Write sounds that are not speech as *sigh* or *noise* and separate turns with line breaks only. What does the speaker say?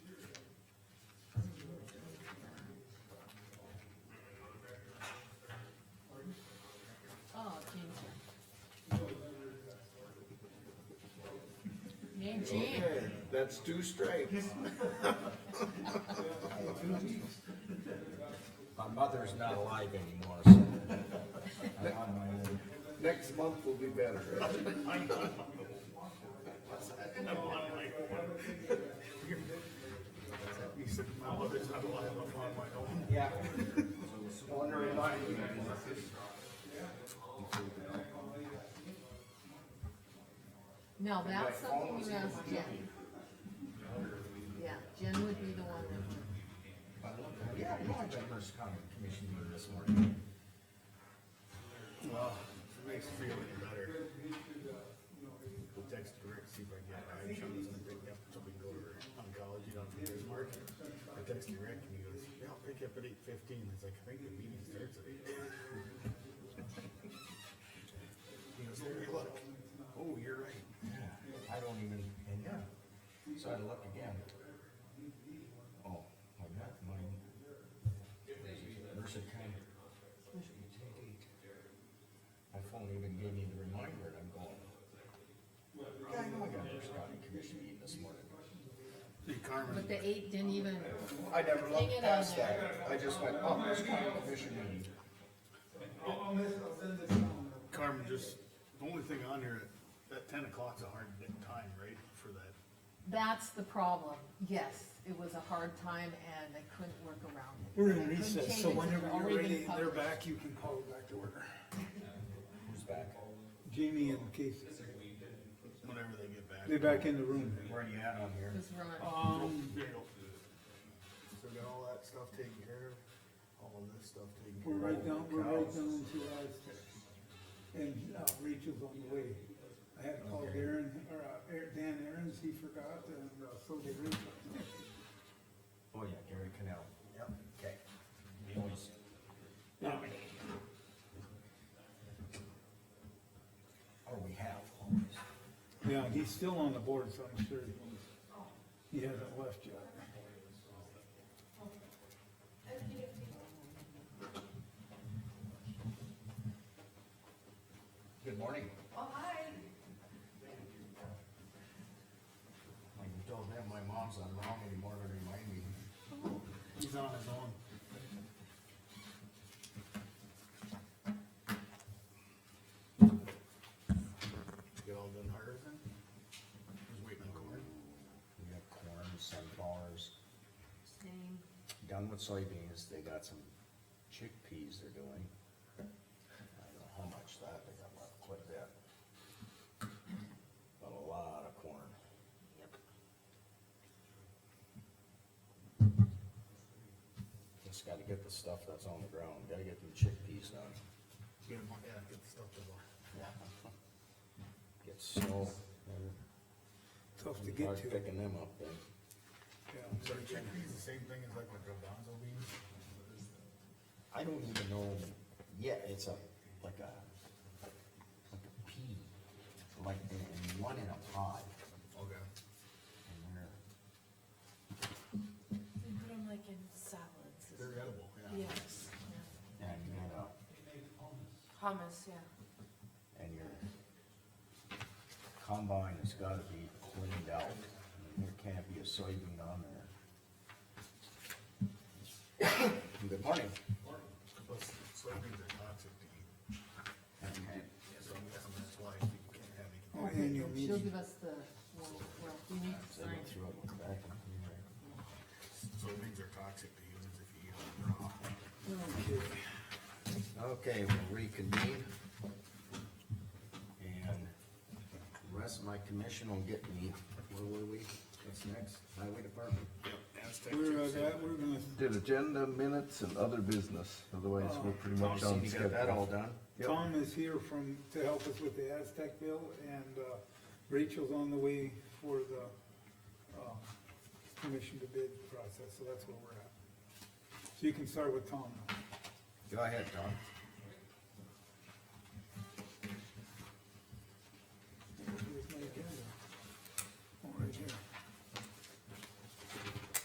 Oh, Gee.
Okay, that's two strikes.
My mother's not alive anymore, so. I'm on my own.
Next month will be better.
He said, my mother's not alive, I'm on my own.
Yeah.
No, that's something you ask Jen. Yeah, Jen would be the one that would.
Yeah, we had our first county commission meeting this morning.
Well, it makes me feel any better. We'll text Rick, see if I can get an eye shot, and pick up, so we can go to oncology down from his market. I texted Rick and he goes, yeah, I'll pick you up at eight fifteen, it's like, I think the meeting starts at eight. He goes, there you look, oh, you're right.
I don't even, and yeah, so I had to look again. Oh, my God, my. Mercer County. My phone even gave me the reminder and I'm going. Yeah, I know I got first county commission meeting this morning.
See Carmen,
But the eight didn't even,
I never
Hang it
looked
on
past that,
there.
I just went, oh, first county commission meeting.
Carmen, just, the only thing on here, that ten o'clock's a hard time, right, for that?
that's the problem. Yes, it was a hard time and I couldn't work around it.
We're in
Couldn't
recess,
change
so
it 'cause
whenever
it's
you're
already been
ready, they're
published.
back, you can call it back to order.
Who's back?
Jamie and Casey,
Whenever they get back.
they're back in the room.
Where are you at on here?
It was run.
Um,
There you go. So we got all that stuff taken care of, all of this stuff taken care of.
we're right down, we're right
Cows.
down to ours. And uh, Rachel's on the way. I had called Darren, or uh, Er- Dan Aaron's, he forgot, and uh, so did Rachel.
Oh, yeah, Gary Canal. Yep. Okay. Or we have always.
Yeah, he's still on the board, so I'm sure he's- he hasn't left yet.
Good morning.
Oh, hi.
Like you told them, my mom's not wrong anymore to remind me.
He's on his own. Get all done harvesting? Just waiting on corn?
We got corn, sunflowers,
Same.
done with soybeans, they got some chickpeas they're doing. I don't know how much that, they got left quite a bit. But a lot of corn. Yep. Just gotta get the stuff that's on the ground, gotta get them chickpeas done.
Get 'em on- yeah, get the stuff to the.
Get snow, and
Tough to get
start
to,
picking them up then.
yeah.
So the chickpeas the same thing as like the garbanzo beans?
I don't even know, yeah, it's a, like a, like a pea, like, and, and one in a pod,
Okay.
and they're,
We put them like in salads.
They're edible, yeah.
Yes. yeah.
and you gotta,
Hummus, yeah.
and your combine has gotta be cleaned out, there can't be a soybean on there. *coughs* Good morning.
Plus soybeans are toxic to eat,
Okay.
so I'm guessing that's why you can't have it.
Oh, annual
She'll
meeting.
give us the, one- well, we need to
So I
sign.
went through it, went back, and-
Soybeans are toxic to humans if you eat them raw.
Okay.
Okay, we'll reconvene. And the rest of my commission will get me, where were we? What's next? Highway Department?
Yep, Aztec
We're,
chips.
uh, that, we're gonna
Did agenda minutes and other business, otherwise we're pretty much on
You got that
schedule.
all done?
Yep.
Tom is here from, to help us with the Aztec bill, and uh, Rachel's on the way for the uh, commission to bid process, so that's where we're at. So you can start with Tom. now.
Go ahead, Tom.
Oh,